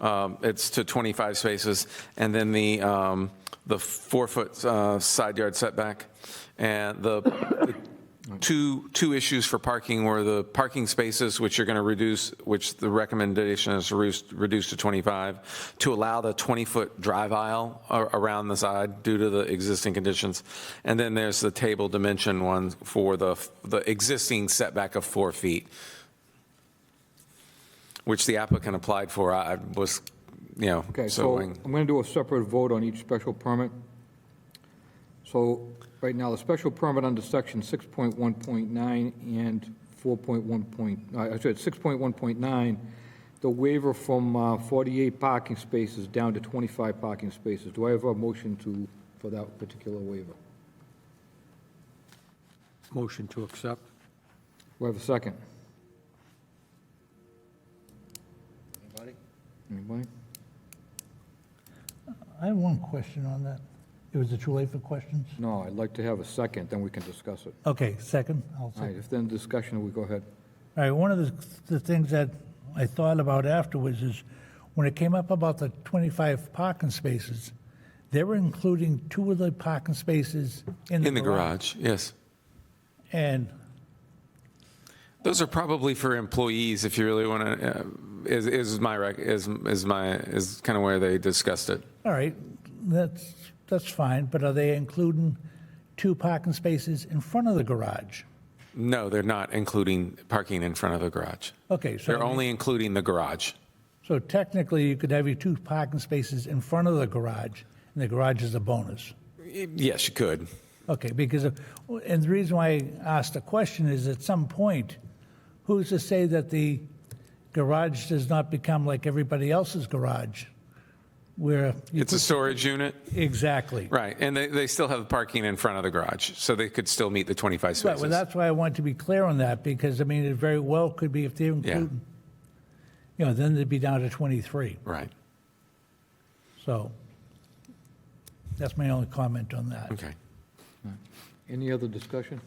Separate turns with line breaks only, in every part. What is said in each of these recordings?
Um, It's to 25 spaces. And then the, um, the four-foot uh, side yard setback. And the the two, two issues for parking were the parking spaces, which you're going to reduce, which the recommendation is to reduce- reduce to 25, to allow the 20-foot drive aisle a- around the side due to the existing conditions. And then there's the table dimension one for the, the existing setback of four feet which the applicant applied for, I I was, you know,
Okay, so
so,
I'm going to do a separate vote on each special permit. So right now, the special permit under section 6.1.9 and 4.1 point, uh, I I said 6.1.9, the waiver from uh, 48 parking spaces down to 25 parking spaces. Do I have a motion to, for that particular waiver?
Motion to accept.
Do I have a second? Anybody? Anybody?
I have one question on that. It was it too late for questions?
No, I'd like to have a second, then we can discuss it.
Okay, second. I'll
All right,
second.
if then discussion, we go ahead.
All right, one of the, the things that I thought about afterwards is when it came up about the 25 parking spaces, they were including two of the parking spaces in the
in the garage, yes.
And,
Those are probably for employees, if you really want to, is, is my, rec- is, is my, is kind of where they discussed it.
all right, that's, that's fine, but are they including two parking spaces in front of the garage?
No, they're not including parking in front of the garage.
Okay, so.
They're only including the garage.
So technically, you could have your two parking spaces in front of the garage, and the garage is a bonus.
Yes, you could.
Okay, because, of- and the reason why I asked the question is at some point, who's to say that the garage does not become like everybody else's garage? Where, you-
It's a storage unit,
exactly.
right, and they, they still have parking in front of the garage, so they could still meet the 25
Right, well,
spaces.
that's why I want to be clear on that, because I mean, it very well could be if they're including, you know, then they'd be down to 23.
Right,
So that's my only comment on that.
okay.
Any other discussion?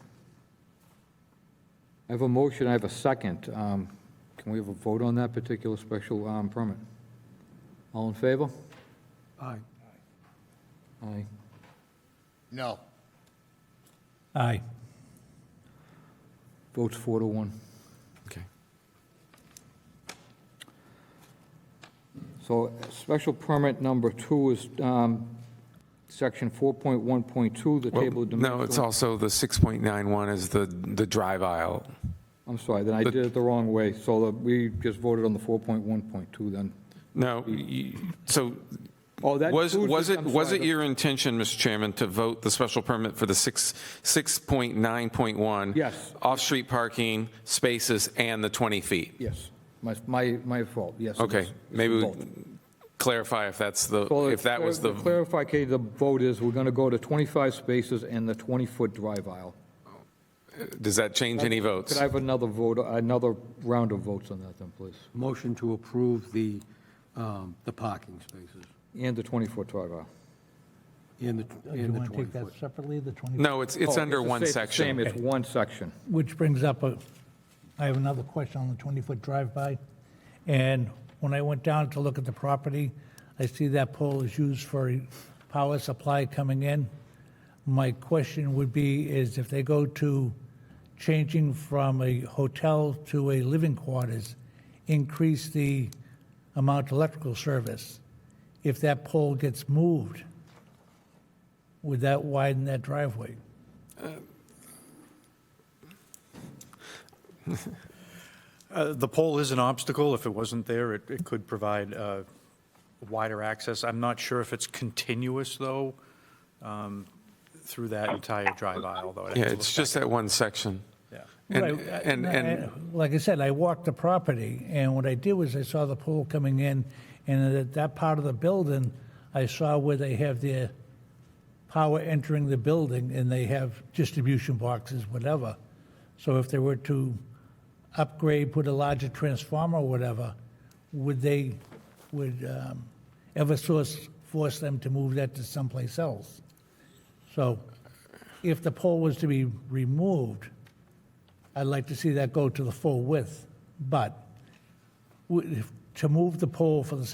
I have a motion, I have a second. Um, Can we have a vote on that particular special um, permit? All in favor?
Aye.
Aye.
No.
Aye.
Votes four to one.
Okay.
So special permit number two is um, section 4.1.2, the
Well,
table of dimensions.
No, it's also the 6.91 is the, the drive aisle.
I'm sorry, then I did it the wrong way. So uh, we just voted on the 4.1.2 then.
No, you- so
Oh, that
was,
includes
was
the-
it,
I'm
was
sorry,
it
the-
your intention, Mr. Chairman, to vote the special permit for the 6, 6.9.1?
Yes.
Off-street parking, spaces, and the 20 feet?
Yes, my, my my fault, yes. it
Okay,
is. It's
maybe we
both.
clarify if that's the,
So
if that was
To
the,
clarify, Katie, the vote is, we're going to go to 25 spaces and the 20-foot drive aisle.
does that change any
Could
votes?
I have another vote, another round of votes on that then, please?
Motion to approve the, um, the parking spaces
And the 20-foot drive aisle.
and the,
Oh, Do you
and the
want to take
20-foot.
that separately, the 20?
No, it's, it's
Oh,
under
the
one
same- Same,
section.
it's one section.
Which brings up, a- I have another question on the 20-foot drive-by. And when I went down to look at the property, I see that pole is used for a power supply coming in. My question would be is if they go to changing from a hotel to a living quarters, increase the amount of electrical service. If that pole gets moved, would that widen that driveway?
Uh, The pole is an obstacle. If it wasn't there, it, it could provide uh, wider access. I'm not sure if it's continuous, though, um, through that entire drive aisle, though. I'd have to
Yeah,
look
it's
back
just
at-
that one section.
Yeah.
And,
Right, uh,
and,
no,
and
I- Like I said, I walked the property, and what I did was I saw the pool coming in, and at that part of the building, I saw where they have their power entering the building, and they have distribution boxes, whatever. So if they were to upgrade, put a larger transformer or whatever, would they, would um, Eversource force them to move that to someplace else? So if the pole was to be removed, I'd like to see that go to the full width, but w- if- to move the pole for the